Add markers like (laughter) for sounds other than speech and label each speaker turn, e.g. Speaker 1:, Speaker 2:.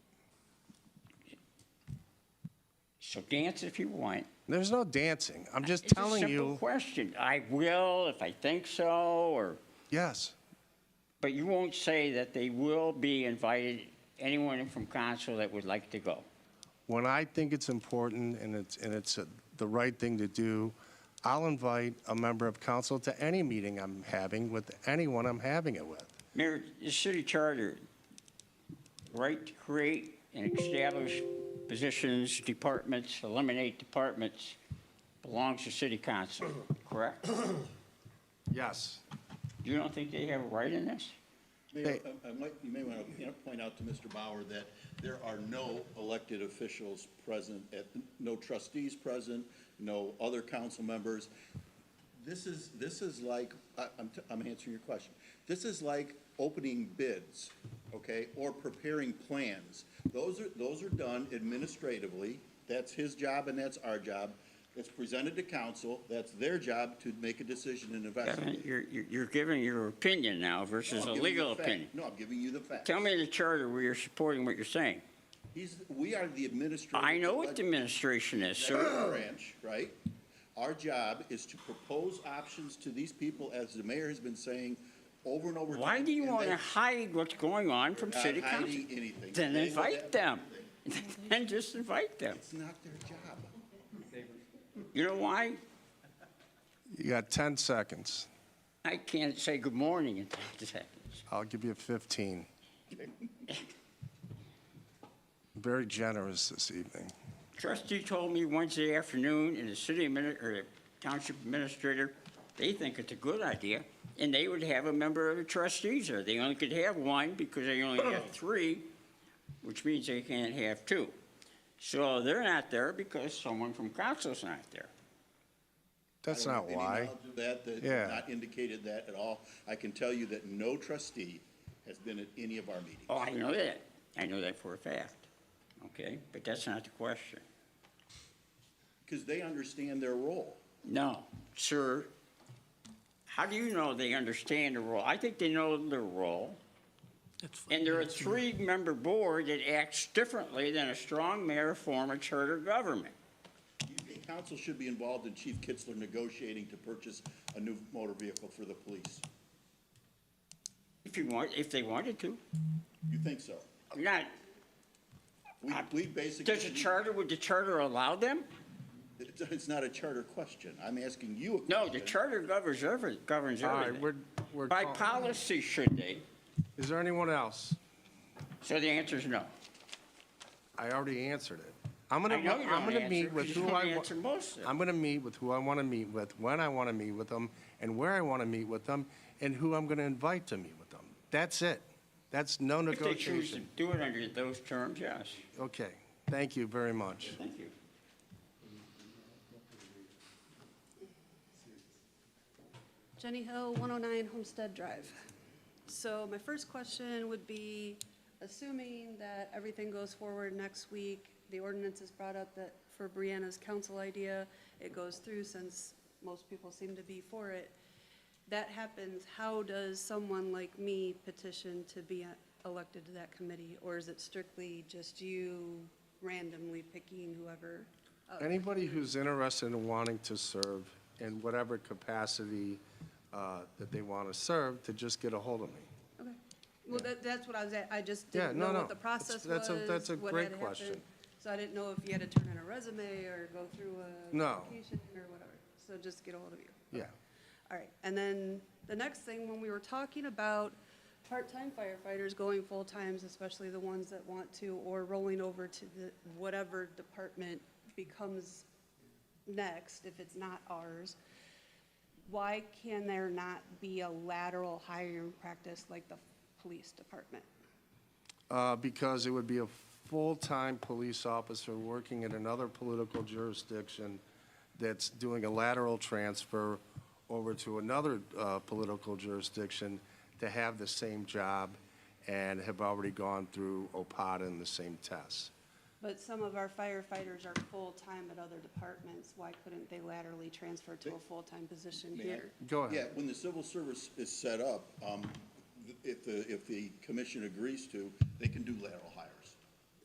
Speaker 1: So dance if you want.
Speaker 2: There's no dancing. I'm just
Speaker 1: Uh, It's a
Speaker 2: telling
Speaker 1: Simple
Speaker 2: you,
Speaker 1: question. I will if I think so, or,
Speaker 2: yes.
Speaker 1: but you won't say that they will be invited, anyone from council that would like to go.
Speaker 2: When I think it's important and it's, and it's uh, the right thing to do, I'll invite a member of council to any meeting I'm having with anyone I'm having it with.
Speaker 1: Mayor, the city charter, right to create and establish positions, departments, eliminate departments, belongs to city council, correct?
Speaker 2: Yes.
Speaker 1: You don't think they have a right in this?
Speaker 3: Mayor,
Speaker 2: Hey.
Speaker 3: I- I might- you may want to point out to Mr. Bauer that there are no elected officials present, at no trustees present, no other council members. This is, this is like, I- I'm, t- I'm answering your question. This is like opening bids, okay, or preparing plans. Those are, those are done administratively. That's his job and that's our job. It's presented to council. That's their job to make a decision and
Speaker 1: Kevin,
Speaker 3: investigate.
Speaker 1: You're, you're you're giving your opinion now versus
Speaker 3: No,
Speaker 1: a
Speaker 3: I'm giving you
Speaker 1: legal
Speaker 3: the fact.
Speaker 1: opinion.
Speaker 3: No, I'm giving you the facts.
Speaker 1: Tell me the charter where you're supporting what you're saying.
Speaker 3: He's, we are the administrative.
Speaker 1: I know what the administration is, sir.
Speaker 3: executive Branch, right? Our job is to propose options to these people, as the mayor has been saying over and over.
Speaker 1: Why
Speaker 3: time,
Speaker 1: do you
Speaker 3: and
Speaker 1: want
Speaker 3: they-
Speaker 1: to hide what's going on from
Speaker 3: They're
Speaker 1: city
Speaker 3: not
Speaker 1: council?
Speaker 3: hiding anything.
Speaker 1: Then
Speaker 3: They know
Speaker 1: invite them.
Speaker 3: that.
Speaker 1: (laughs) Then just invite them.
Speaker 3: It's not their job.
Speaker 1: You know why?
Speaker 2: You got 10 seconds.
Speaker 1: I can't say good morning in 10 seconds.
Speaker 2: I'll give you 15. Very generous this evening.
Speaker 1: Trustee told me Wednesday afternoon in the city admini- or the township administrator, they think it's a good idea, and they would have a member of the trustees there. They only could have one because they only have three, which means they can't have two. So they're not there because someone from council's not there.
Speaker 2: That's
Speaker 3: I
Speaker 2: not
Speaker 3: don't have any
Speaker 2: why.
Speaker 3: knowledge of That, that
Speaker 2: Yeah.
Speaker 3: not indicated that at all. I can tell you that no trustee has been at any of our meetings.
Speaker 1: Oh, I know that. I know that for a fact. Okay, but that's not the question.
Speaker 3: Because they understand their role.
Speaker 1: No, sir. How do you know they understand the role? I think they know their role. And they're a three-member board that acts differently than a strong mayor form of charter government.
Speaker 3: You think Council should be involved in Chief Kitzler negotiating to purchase a new motor vehicle for the police.
Speaker 1: If you want, if they wanted to.
Speaker 3: You think so?
Speaker 1: You're not,
Speaker 3: We, we basically.
Speaker 1: does the charter, would the charter allow them?
Speaker 3: (laughs) It's, it's not a charter question. I'm asking you a
Speaker 1: No,
Speaker 3: question.
Speaker 1: the charter governs every, governs
Speaker 2: All right,
Speaker 1: everything.
Speaker 2: we're- we're
Speaker 1: By
Speaker 2: talking-
Speaker 1: policy, should they?
Speaker 2: Is there anyone else?
Speaker 1: So the answer is no.
Speaker 2: I already answered it. I'm
Speaker 1: I
Speaker 2: gonna,
Speaker 1: know you
Speaker 2: I'm
Speaker 1: don't
Speaker 2: gonna
Speaker 1: answer,
Speaker 2: meet
Speaker 1: 'cause
Speaker 2: with
Speaker 1: you
Speaker 2: who
Speaker 1: don't
Speaker 2: I,
Speaker 1: answer
Speaker 2: wa-
Speaker 1: most of it.
Speaker 2: I'm gonna meet with who I wanna meet with, when I wanna meet with them, and where I wanna meet with them, and who I'm gonna invite to meet with them. That's it. That's no
Speaker 1: If they choose to
Speaker 2: negotiation.
Speaker 1: do it under those terms, yes.
Speaker 2: Okay, thank you very much.
Speaker 1: Thank you.
Speaker 4: Jenny Hill, 109 Homestead Drive. So my first question would be, assuming that everything goes forward next week, the ordinance is brought up that for Brianna's council idea, it goes through since most people seem to be for it. That happens, how does someone like me petition to be e-, elected to that committee? Or is it strictly just you randomly picking whoever? up?
Speaker 2: Anybody who's interested in wanting to serve in whatever capacity uh, that they want to serve, to just get a hold of me.
Speaker 4: Okay. Well, that, that's what I was at, I just
Speaker 2: Yeah,
Speaker 4: didn't
Speaker 2: no,
Speaker 4: know
Speaker 2: no.
Speaker 4: what the process was,
Speaker 2: That's- that's a- that's a
Speaker 4: what
Speaker 2: great
Speaker 4: had
Speaker 2: question.
Speaker 4: happened. So I didn't know if you had to turn in a resume or go through a
Speaker 2: No.
Speaker 4: application or whatever. So just get a hold of you.
Speaker 2: Yeah.
Speaker 4: All right, and then the next thing, when we were talking about part-time firefighters going full-times, especially the ones that want to, or rolling over to the, whatever department becomes next, if it's not ours, why can there not be a lateral hiring practice like the police department?
Speaker 2: Uh, Because it would be a full-time police officer working in another political jurisdiction that's doing a lateral transfer over to another uh, political jurisdiction to have the same job and have already gone through OPAD and the same tests.
Speaker 4: But some of our firefighters are full-time at other departments, why couldn't they laterally transfer to a full-time position here?
Speaker 2: Go ahead.
Speaker 3: Yeah, when the civil service is set up, um, if the, if the commission agrees to, they can do lateral hiring.